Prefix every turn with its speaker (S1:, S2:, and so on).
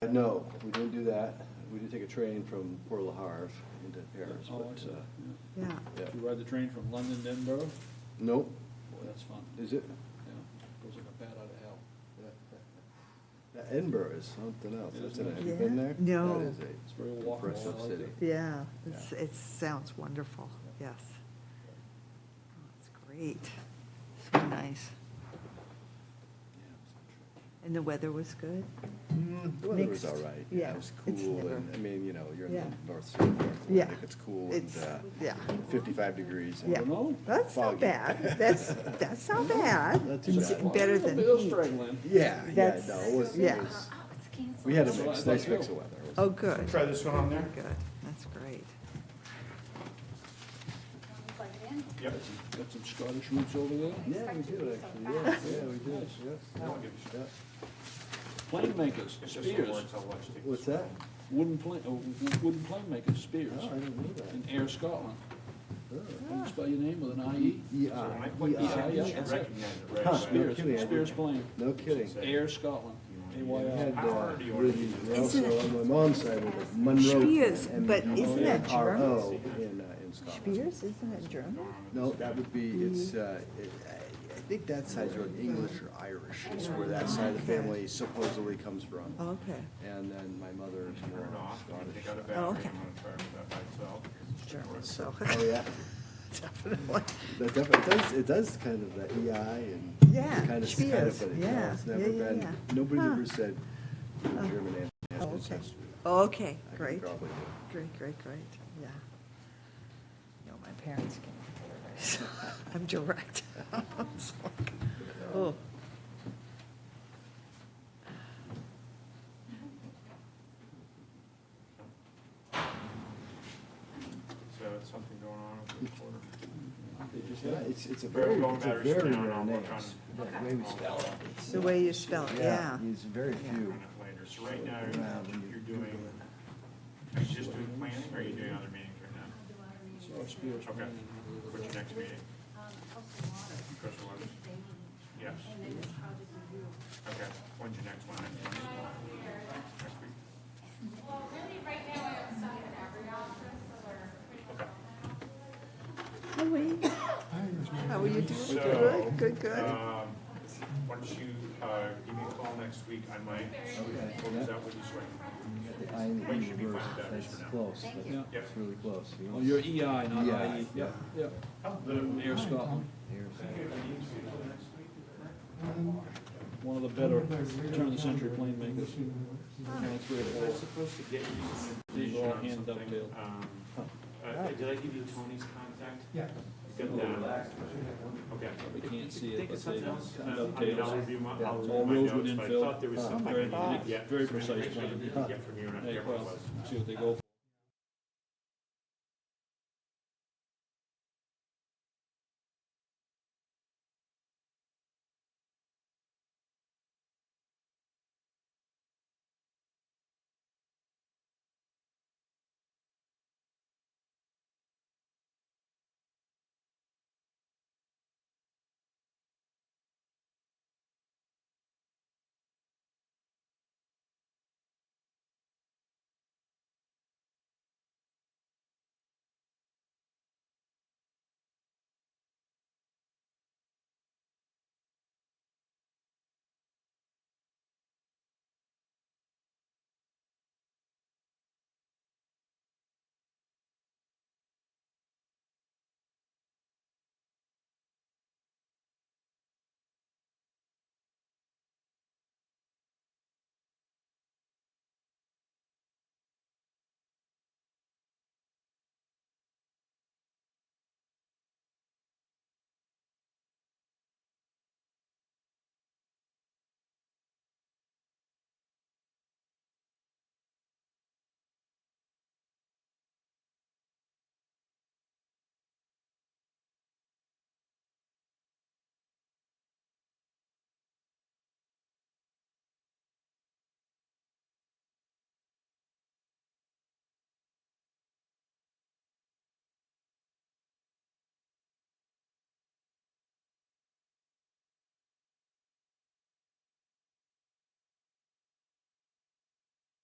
S1: Uh, no, we didn't do that. We did take a train from Port La Harve into Paris,
S2: Oh, I
S1: but,
S2: see.
S1: uh,
S2: Yeah.
S3: Yeah.
S1: yeah.
S2: You ride the train from London to Edinburgh?
S1: Nope,
S2: Boy, that's fun. Yeah,
S1: is it?
S2: goes like a bat out of hell.
S1: Yeah, uh, Edinburgh is something else,
S2: Isn't
S1: isn't it?
S2: it?
S1: Have you been
S3: Yeah.
S1: there?
S3: No.
S1: That is a
S2: It's very walkable. I
S1: impressive
S2: like
S1: city.
S2: it.
S3: Yeah, it's, it sounds wonderful, yes. Oh, It's great, so nice. And the weather was good?
S1: Mm, The weather was
S3: Mixed.
S1: all right. Yeah,
S3: Yeah,
S1: It was
S3: it's
S1: cool,
S3: never-
S1: and, I mean, you know, you're in the
S3: Yeah.
S1: North Sea, North
S3: Yeah.
S1: Atlantic, it's cool, and,
S3: It's,
S1: uh,
S3: yeah,
S1: fifty-five degrees. and
S3: yeah.
S2: know.
S3: That's not
S1: Foggy.
S3: bad, that's, that's not bad.
S1: Not too
S3: It's
S1: bad.
S3: Better
S2: Well,
S3: than
S2: Bill's
S3: heat.
S2: struggling.
S1: Yeah, yeah,
S3: That's-
S1: no, it was, it
S3: yeah.
S1: was,
S4: Oh, it's canceled.
S1: we had a
S2: That's what I
S1: mix,
S2: thought
S1: nice mix
S2: too.
S1: of weather. It was-
S3: Oh, good,
S5: Try this one on there?
S3: good, that's great.
S4: Plug it in.
S5: Yep.
S2: Got some Scottish roots over there.
S1: Yeah, we did, actually, yeah, yeah, we did, yes.
S5: That'll give you-
S1: yeah.
S2: Plane makers,
S5: It's just some
S2: Spears,
S5: words I'll watch too.
S1: What's that?
S2: wooden plane, oh, w- wooden plane makers, Spears,
S1: Oh, I didn't know that.
S2: in Air Scotland.
S1: Oh.
S2: Can you spell your name with an IE?
S1: E
S5: So
S1: I,
S5: when I put
S1: E
S5: these
S1: I.
S5: in, you
S2: yeah,
S5: should
S2: that's it.
S5: recognize it right
S1: Huh.
S5: away.
S2: Spears,
S1: kidding, I
S2: Spears
S1: didn't.
S2: plane,
S1: No kidding.
S2: Air Scotland,
S5: E
S1: We had,
S2: AYL.
S1: uh, really- we also, on my mom's side, we had Monroe.
S3: Spears,
S1: and
S3: but isn't that
S1: MRO In, uh, in Scotland.
S3: Spears, isn't it German?
S1: No, that would be, it's, uh, it- I, I think that side's are English or Irish, is where that side of the family supposedly comes from.
S3: Okay,
S1: And then my mother is
S5: Turn
S1: more
S5: it off, and
S1: Scottish.
S5: take out a battery,
S3: Oh,
S5: I'm
S3: okay.
S5: gonna try with that by itself.
S3: German, so,
S1: Oh, yeah,
S3: definitely.
S1: that definitely, it does, it does kind of that E I and.
S3: Yeah,
S1: Kind of Scottish,
S3: Spears,
S1: but it-
S3: yeah,
S1: no, it's never
S3: yeah, yeah,
S1: been,
S3: yeah.
S1: nobody's
S3: Huh. Uh,
S1: ever said you're a German
S3: Oh, okay.
S1: ancestry.
S3: Okay,
S1: I could
S3: great.
S1: probably do it.
S3: Great, great, great, yeah. No, my parents came from Paradise. I'm direct. It's like, oh.
S5: So it's something going on with the recorder.
S2: They just
S1: Yeah,
S2: had it.
S1: it's, it's a
S5: Very
S1: very,
S5: long
S1: it's a
S5: batteries
S1: very
S5: down,
S1: rare
S5: I'll
S1: name.
S5: work on-
S1: It's The way we spell it. it's,
S3: The
S1: uh,
S3: way you spell it, yeah.
S1: It's very
S3: Yeah.
S1: few.
S5: On it later. So right now,
S1: Yeah, when you
S5: you're- you're doing, are you just doing planning, or are you doing other meetings right now?
S2: So Spears
S5: Okay.
S2: plane.
S5: What's your next meeting?
S4: Um, Coastal Water,
S5: Coastal Waters?
S4: they need,
S5: Yes,
S4: and then this project review.
S5: okay. When's your next one? Next week? Next week?
S3: How are you? How are you doing?
S5: So,
S3: Good, good, good.
S5: Um, why don't you, uh, give me a call next week, I might, what is that, what you swear?
S1: You got the I and the
S5: Well, you
S1: E
S5: should be fine
S1: reversed.
S5: with that
S1: That's
S5: for now.
S1: close, but
S2: you.
S5: Yeah.
S1: it's really close. You
S2: Oh,
S1: don't-
S2: you're EI, not
S1: Yeah.
S2: IE, yeah, yeah, Air Scotland,
S1: Here's-
S2: one of the better turn of the century plane makers. That's where it
S5: I'm
S2: was.
S5: supposed to get you some
S2: These are
S5: information
S2: all
S5: on
S2: hand
S5: something.
S2: dovetailed.
S5: Um, uh, Did I give you Tony's contact? Yeah. Got that? Okay.
S2: We can't see
S5: Think
S2: it,
S5: of
S2: but they
S5: something else.
S2: kind
S5: Uh,
S2: of
S5: I mean,
S2: dovetails.
S5: I'll review my, I'll
S2: All
S5: review my
S2: roads
S5: notes,
S2: would
S5: but I
S2: infill.
S5: thought there was something I
S2: Very,
S5: didn't get.
S2: very
S5: some
S2: precise
S5: information I
S2: plan.
S5: didn't Get from you, and I
S2: They
S5: forget what it
S2: cross,
S5: was.
S2: see what they go